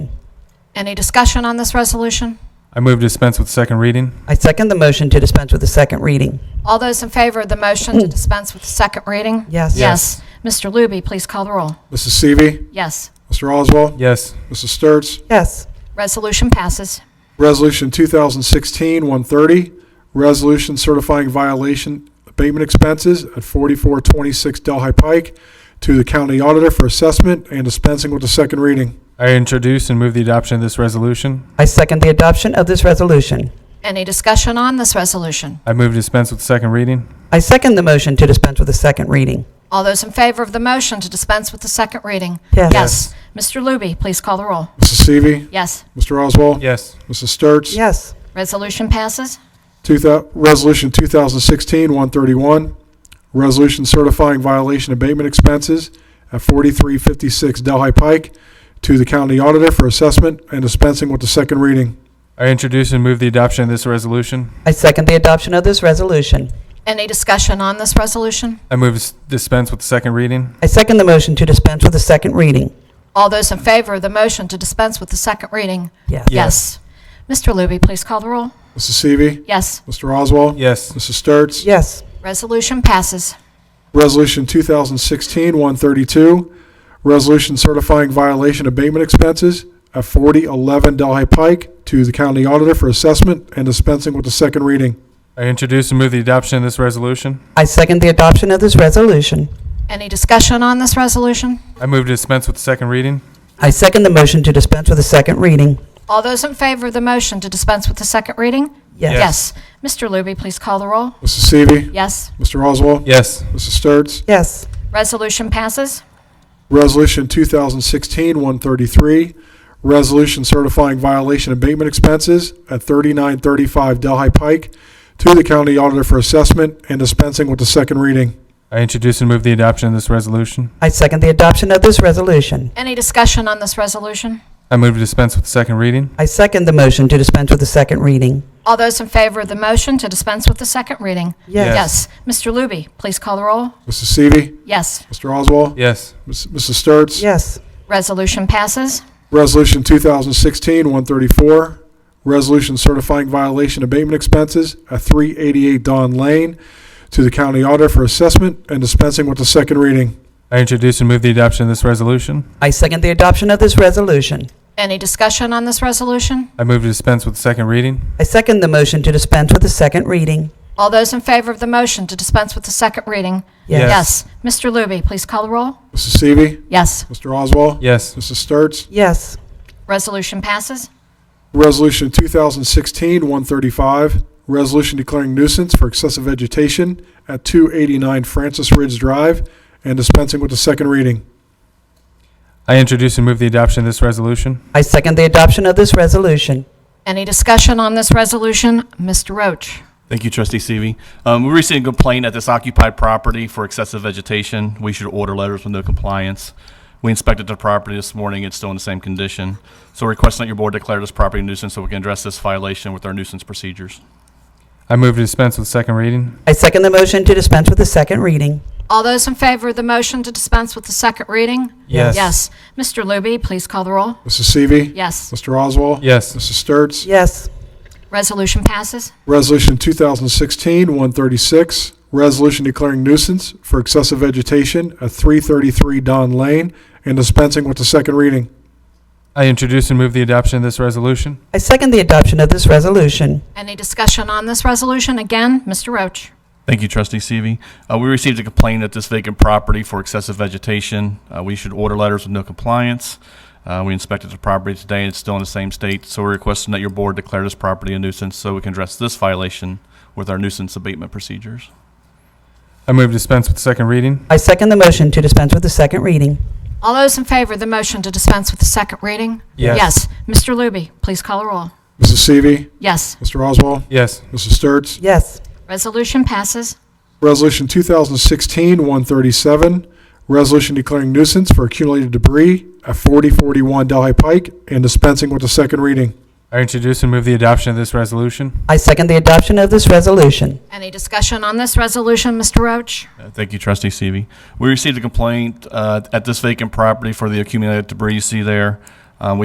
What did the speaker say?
Any discussion on this resolution? I move to dispense with second reading. I second the motion to dispense with the second reading. All those in favor of the motion to dispense with the second reading? Yes. Yes. Mr. Looby, please call the roll. Mrs. Seavey. Yes. Mr. Oswald. Yes. Mrs. Sturts. Yes. Resolution passes. Resolution 2016-130, resolution certifying violation abatement expenses at 4426 Delhi Pike to the county auditor for assessment and dispensing with the second reading. I introduce and move the adoption of this resolution. I second the adoption of this resolution. Any discussion on this resolution? I move to dispense with second reading. I second the motion to dispense with the second reading. All those in favor of the motion to dispense with the second reading? Yes. Yes. Mr. Looby, please call the roll. Mrs. Seavey. Yes. Mr. Oswald. Yes. Mrs. Sturts. Yes. Resolution passes. Two thou- Resolution 2016-131, resolution certifying violation abatement expenses at 4356 Delhi Pike to the county auditor for assessment and dispensing with the second reading. I introduce and move the adoption of this resolution. I second the adoption of this resolution. Any discussion on this resolution? I move to s- dispense with second reading. I second the motion to dispense with the second reading. All those in favor of the motion to dispense with the second reading? Yes. Yes. Mr. Looby, please call the roll. Mrs. Seavey. Yes. Mr. Oswald. Yes. Mrs. Sturts. Yes. Resolution passes. Resolution 2016-132, resolution certifying violation abatement expenses at 4011 Delhi Pike to the county auditor for assessment and dispensing with the second reading. I introduce and move the adoption of this resolution. I second the adoption of this resolution. Any discussion on this resolution? I move to dispense with second reading. I second the motion to dispense with the second reading. All those in favor of the motion to dispense with the second reading? Yes. Mr. Looby, please call the roll. Mrs. Seavey. Yes. Mr. Oswald. Yes. Mrs. Sturts. Yes. Resolution passes. Resolution 2016-133, resolution certifying violation abatement expenses at 3935 Delhi Pike to the county auditor for assessment and dispensing with the second reading. I introduce and move the adoption of this resolution. I second the adoption of this resolution. Any discussion on this resolution? I move to dispense with second reading. I second the motion to dispense with the second reading. All those in favor of the motion to dispense with the second reading? Yes. Yes. Mr. Looby, please call the roll. Mrs. Seavey. Yes. Mr. Oswald. Yes. Ms- Mrs. Sturts. Yes. Resolution passes. Resolution 2016-134, resolution certifying violation abatement expenses at 388 Don Lane to the county auditor for assessment and dispensing with the second reading. I introduce and move the adoption of this resolution. I second the adoption of this resolution. Any discussion on this resolution? I move to dispense with second reading. I second the motion to dispense with the second reading. All those in favor of the motion to dispense with the second reading? Yes. Mr. Looby, please call the roll. Mrs. Seavey. Yes. Mr. Oswald. Yes. Mrs. Sturts. Yes. Resolution passes. Resolution 2016-135, resolution declaring nuisance for excessive vegetation at 289 Francis Ridge Drive and dispensing with the second reading. I introduce and move the adoption of this resolution. I second the adoption of this resolution. Any discussion on this resolution? Mr. Roach. Thank you, Trustee Seavey. Um, We received a complaint at this occupied property for excessive vegetation. We should order letters with no compliance. We inspected the property this morning. It's still in the same condition. So requesting that your board declare this property nuisance so we can address this violation with our nuisance procedures. I move to dispense with second reading. I second the motion to dispense with the second reading. All those in favor of the motion to dispense with the second reading? Yes. Yes. Mr. Looby, please call the roll. Mrs. Seavey. Yes. Mr. Oswald. Yes. Mrs. Sturts. Yes. Resolution passes. Resolution 2016-136, resolution declaring nuisance for excessive vegetation at 333 Don Lane and dispensing with the second reading. I introduce and move the adoption of this resolution. I second the adoption of this resolution. Any discussion on this resolution? Again, Mr. Roach. Thank you, Trustee Seavey. Uh, We received a complaint at this vacant property for excessive vegetation. Uh, We should order letters with no compliance. Uh, We inspected the property today. It's still in the same state. So we're requesting that your board declare this property a nuisance so we can address this violation with our nuisance abatement procedures. I move to dispense with second reading. I second the motion to dispense with the second reading. All those in favor of the motion to dispense with the second reading? Yes. Yes. Mr. Looby, please call the roll. Mrs. Seavey. Yes. Mr. Oswald. Yes. Mrs. Sturts. Yes. Resolution passes. Resolution 2016-137, resolution declaring nuisance for accumulated debris at 4041 Delhi Pike and dispensing with the second reading. I introduce and move the adoption of this resolution. I second the adoption of this resolution. Any discussion on this resolution, Mr. Roach? Uh, Thank you, Trustee Seavey. We received a complaint uh, at this vacant property for the accumulated debris you see there.